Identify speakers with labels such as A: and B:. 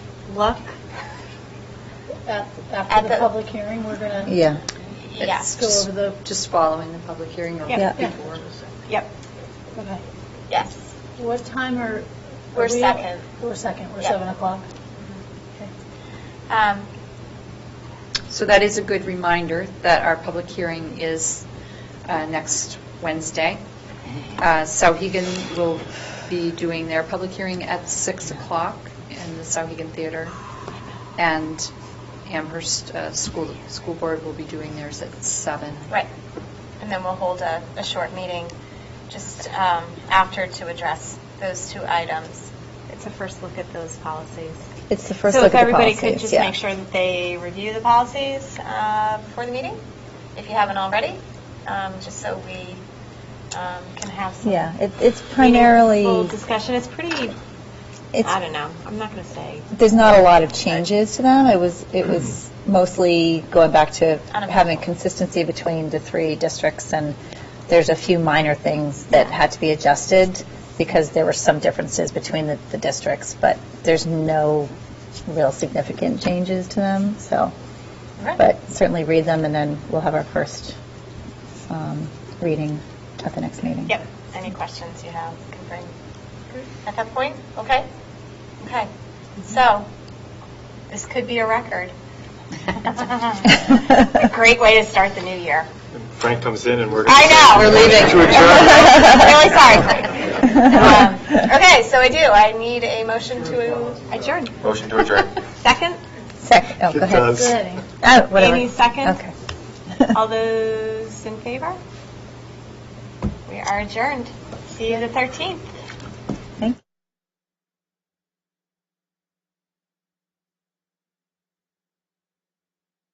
A: luck?
B: At-
C: At
B: After
C: the-
B: the public hearing, we're going to
D: Yeah.
C: Yeah.
B: go over the,
A: Just following the public hearing or
D: Yeah.
A: before?
C: Yep.
B: okay.
C: Yes.
B: What time are? are
C: We're
B: we-
C: second.
B: We're second, we're
C: Yeah. Mm-hmm.
B: 7 o'clock.
C: Um,
A: So that is a good reminder that our public hearing is uh, next Wednesday. Uh, Sauhegan will be doing their public hearing at 6 o'clock in the Sauhegan Theater, and Amherst uh, School School Board will be doing theirs at 7.
C: right. And then we'll hold a, a short meeting just um, after to address those two items.
E: It's a first look at those policies.
D: It's the first
E: so
D: look
E: if
D: at the
E: everybody could
D: policies,
E: just
D: yeah.
E: make sure that they review the policies.
C: Uh, Before the meeting, if you haven't already, um, just so we um, can have some.
D: Yeah, it- it's
E: Full
D: primarily,
E: discussion. It's pretty. I
D: it's,
E: don't know. I'm not going to say.
D: there's not a lot of changes to them. It was, it was mostly going back to having consistency between the three districts, and there's a few minor things that had to be adjusted because there were some differences between the, the districts, but there's no real significant changes to them, so.
C: Right.
D: But certainly read them, and then we'll have our first um, reading at the next meeting.
C: Yep. Any questions you have can bring
D: Mm-hmm.
C: at that point? Okay? Okay. So, this could be a record.
E: A great way to start the new year.
F: Frank comes in and we're.
C: I know.
D: We're leaving.
C: Really
F: To adjourn.
C: sorry, Frank. Um, Okay, so I do. I need a motion to
E: Adjourn.
F: Motion to adjourn.
E: Second.
D: Sec, oh, go
F: It
D: ahead.
F: does.
D: Oh, whatever.
E: Amy second.
D: Okay.
E: All those in favor? We are adjourned. See you the 13th.